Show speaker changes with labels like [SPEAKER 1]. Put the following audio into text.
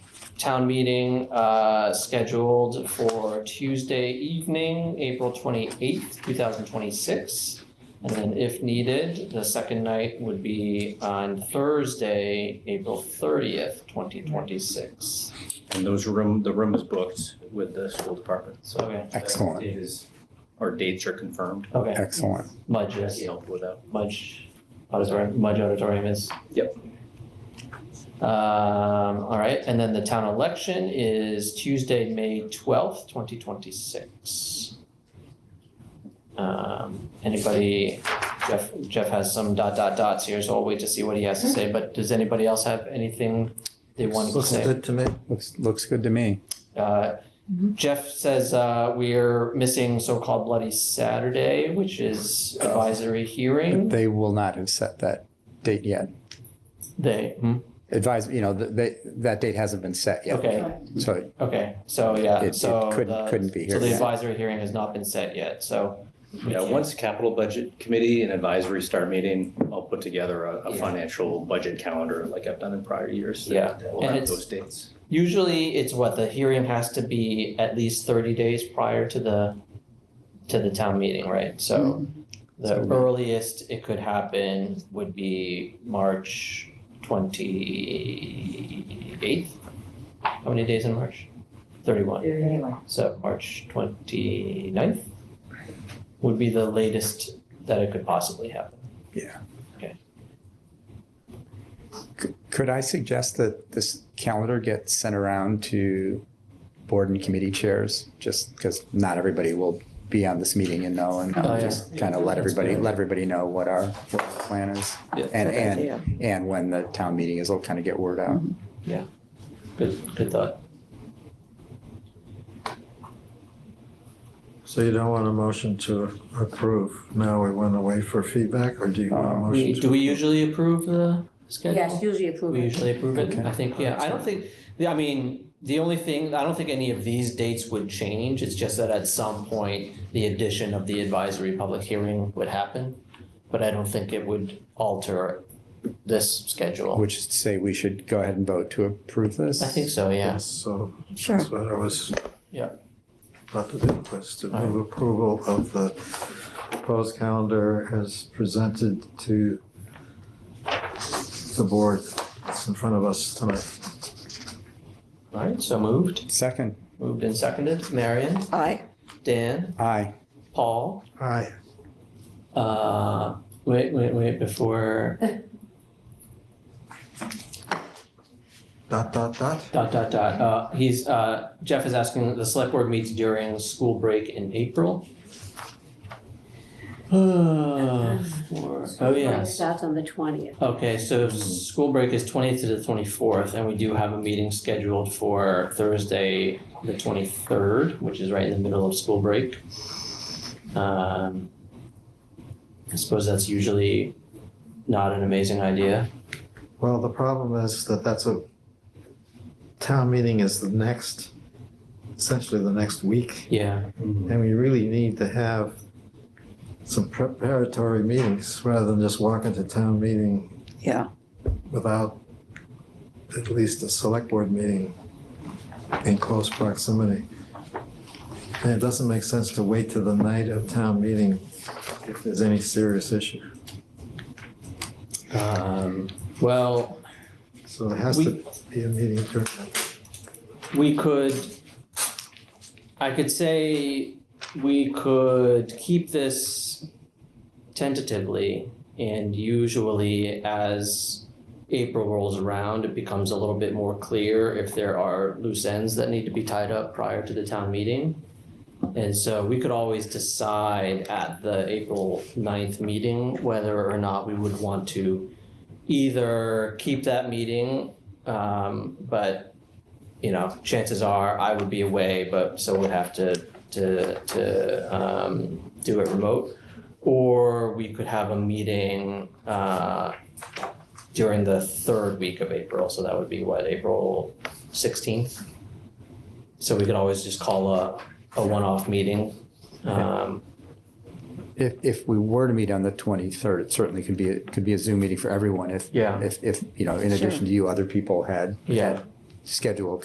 [SPEAKER 1] town meeting uh, scheduled for Tuesday evening, April 28th, 2026. And then if needed, the second night would be on Thursday, April 30th, 2026.
[SPEAKER 2] And those room, the room is booked with the school department, so.
[SPEAKER 1] Okay,
[SPEAKER 3] Excellent.
[SPEAKER 2] It Is, our dates are confirmed.
[SPEAKER 1] okay,
[SPEAKER 3] Excellent.
[SPEAKER 1] Mudge, yes.
[SPEAKER 2] That's helpful with that.
[SPEAKER 1] Mudge Auditorium, Mudge Auditorium is.
[SPEAKER 2] Yep.
[SPEAKER 1] Um, all right, and then the town election is Tuesday, May twelfth, twenty twenty-six. Um, anybody, Jeff, Jeff has some dot dot dots here, so I'll wait to see what he has to say, but does anybody else have anything they want to
[SPEAKER 4] Looks
[SPEAKER 1] say?
[SPEAKER 4] good to me.
[SPEAKER 3] Looks, looks good to me.
[SPEAKER 1] Uh, Jeff says, uh, we're missing so-called Bloody Saturday, which is advisory
[SPEAKER 3] But
[SPEAKER 1] hearing,
[SPEAKER 3] They will not have set that date yet.
[SPEAKER 1] they, hmm?
[SPEAKER 3] Advise, you know, th- they, that date hasn't been set yet.
[SPEAKER 1] okay.
[SPEAKER 3] So
[SPEAKER 1] Okay, so yeah,
[SPEAKER 3] It-
[SPEAKER 1] so
[SPEAKER 3] it couldn't-
[SPEAKER 1] the-
[SPEAKER 3] couldn't be
[SPEAKER 1] So
[SPEAKER 3] here
[SPEAKER 1] the
[SPEAKER 3] yet.
[SPEAKER 1] advisory hearing has not been set yet, so. we
[SPEAKER 2] Yeah,
[SPEAKER 1] can't-
[SPEAKER 2] once capital budget committee and advisory start meeting, I'll put together a, a
[SPEAKER 1] Yeah.
[SPEAKER 2] financial budget calendar like I've done in prior years. that-
[SPEAKER 1] Yeah,
[SPEAKER 2] that will
[SPEAKER 1] and
[SPEAKER 2] have
[SPEAKER 1] it's-
[SPEAKER 2] those dates.
[SPEAKER 1] Usually it's what, the hearing has to be at least thirty days prior to the, to the town meeting, right? So the
[SPEAKER 3] Hmm. So we-
[SPEAKER 1] earliest it could happen would be March twenty-eighth? How many days in March? Thirty-one.
[SPEAKER 5] Anyway,
[SPEAKER 1] So March 29th would be the latest that it could possibly happen.
[SPEAKER 3] c- could I suggest that this calendar get sent around to board and committee chairs? Just because not everybody will be on this meeting and know and
[SPEAKER 1] Oh, yeah.
[SPEAKER 3] just kind of let everybody, let everybody know what our, what our plan is.
[SPEAKER 1] Yeah.
[SPEAKER 3] And,
[SPEAKER 5] good
[SPEAKER 3] and,
[SPEAKER 5] idea.
[SPEAKER 3] and when the town meeting is, it'll kind of get word out.
[SPEAKER 1] Good, good thought.
[SPEAKER 4] So you don't want a motion to approve. Now we want to wait for feedback or do you want a
[SPEAKER 3] Um,
[SPEAKER 4] Uh, motion?
[SPEAKER 1] Uh, We,
[SPEAKER 4] to-
[SPEAKER 1] do we usually approve the schedule?
[SPEAKER 5] Yes, usually approve
[SPEAKER 1] We
[SPEAKER 5] it.
[SPEAKER 1] usually approve it, I think, yeah, I don't think, yeah, I mean, the only thing, I don't think any of these dates would change, it's just that at some point, the addition of the advisory public hearing would happen, but I don't think it would alter this schedule.
[SPEAKER 3] Which is to say, we should go ahead and vote to approve this?
[SPEAKER 1] I think so, yeah.
[SPEAKER 4] So
[SPEAKER 5] Sure.
[SPEAKER 4] that's what I was.
[SPEAKER 1] Yeah.
[SPEAKER 4] About to do was to
[SPEAKER 1] All right.
[SPEAKER 4] move approval of the proposed calendar as presented to the board that's in front of us tonight.
[SPEAKER 1] All right, so moved,
[SPEAKER 3] Second,
[SPEAKER 1] moved and seconded, Marion,
[SPEAKER 5] Aye.
[SPEAKER 1] Dan,
[SPEAKER 3] aye.
[SPEAKER 1] Paul,
[SPEAKER 4] Aye.
[SPEAKER 1] Uh, wait, wait, wait, before
[SPEAKER 4] Dot, dot, dot.
[SPEAKER 1] dot, dot, dot, uh, he's, uh, Jeff is asking, that the select board meets during school break in April? Uh, for- oh, yes,
[SPEAKER 5] Starts on the twentieth.
[SPEAKER 1] okay, so school break is twentieth to the twenty-fourth, and we do have a meeting scheduled for Thursday, the twenty-third, which is right in the middle of school break. Um, I suppose that's usually not an amazing idea.
[SPEAKER 4] Well, the problem is that that's a, town meeting is the next, essentially the next week.
[SPEAKER 1] Yeah,
[SPEAKER 4] And we really need to have some preparatory meetings rather than just walk into town meeting
[SPEAKER 5] Yeah.
[SPEAKER 4] without at least a select board meeting in close proximity. And it doesn't make sense to wait to the night of town meeting if there's any serious issue.
[SPEAKER 1] Um, well,
[SPEAKER 4] So it has to be a meeting during that.
[SPEAKER 1] we could, I could say we could keep this tentatively and usually as April rolls around, it becomes a little bit more clear if there are loose ends that need to be tied up prior to the town meeting. And so we could always decide at the April 9th meeting whether or not we would want to either keep that meeting, um, but you know, chances are I would be away, but so would have to to to um, do it remote, or we could have a meeting uh, during the third week of April. So that would be what April sixteenth. So we could always just call a a one-off meeting. Um,
[SPEAKER 3] If, if we were to meet on the 23rd, it certainly could be, it could be a Zoom meeting for everyone if,
[SPEAKER 1] Yeah.
[SPEAKER 3] if, if, you know, in
[SPEAKER 5] Sure.
[SPEAKER 3] addition to you, other people had
[SPEAKER 1] Yeah.
[SPEAKER 3] had scheduled